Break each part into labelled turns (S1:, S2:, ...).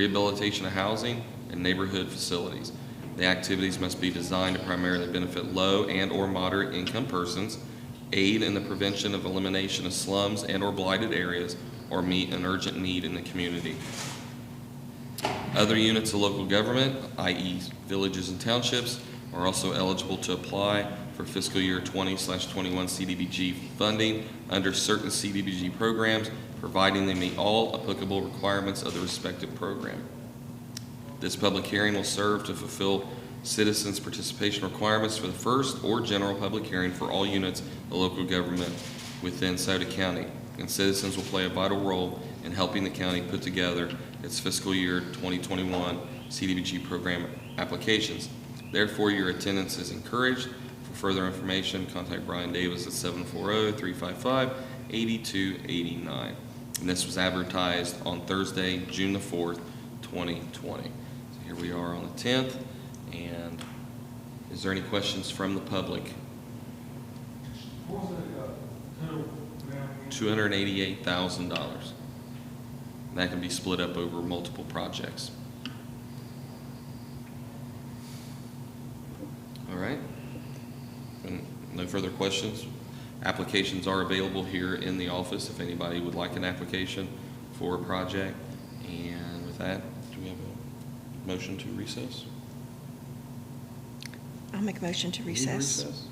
S1: rehabilitation of housing, and neighborhood facilities. The activities must be designed to primarily benefit low and/or moderate-income persons, aid in the prevention of elimination of slums and/or blighted areas, or meet an urgent need in the community. Other units of local government, i.e. villages and townships, are also eligible to apply for fiscal year 20/21 CDBG funding under certain CDBG programs, providing they meet all applicable requirements of the respective program. This public hearing will serve to fulfill citizens' participation requirements for the first or general public hearing for all units of local government within Sauter County, and citizens will play a vital role in helping the county put together its fiscal year 2021 CDBG program applications. Therefore, your attendance is encouraged. For further information, contact Brian Davis at oh, 740-355-8289. And this was advertised on Thursday, June the 4th, 2020. So here we are on the 10th, and is there any questions from the public?
S2: What was that, uh, total amount again?
S1: $288,000. That can be split up over multiple projects. All right. And No further questions? Applications are available here in the office if anybody would like an application for a project. And with that, do we have a motion to recess?
S3: I'll make a motion to
S1: Need
S3: recess.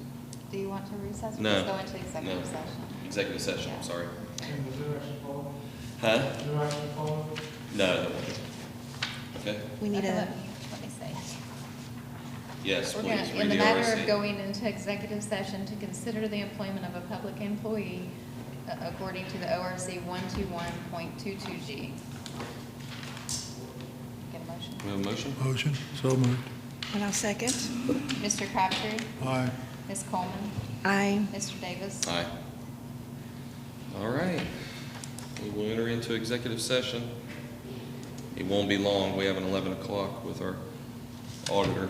S4: Do you want to recess? or
S1: No.
S4: Just go into
S1: No.
S4: executive session?
S1: Executive session,
S4: Yeah.
S1: I'm sorry.
S2: And the new action follow?
S1: Huh?
S2: New action follow?
S1: No. Okay,
S3: We need
S4: Okay,
S3: a,
S4: Let me let me say.
S1: yes,
S4: We're
S1: please.
S4: gonna, in
S1: read
S4: the matter
S1: RSA.
S4: of going into executive session to consider the employment of a public employee uh, according to the ORC 121.22G. Get a motion.
S1: We have a motion?
S5: Motion, so moved.
S3: and I'll second.
S4: Mr. Crabtree,
S5: Aye.
S4: Ms. Coleman,
S3: I,
S4: Mr. Davis.
S1: Aye. All right. We will enter into executive session. It won't be long. We have an 11 o'clock with our auditor.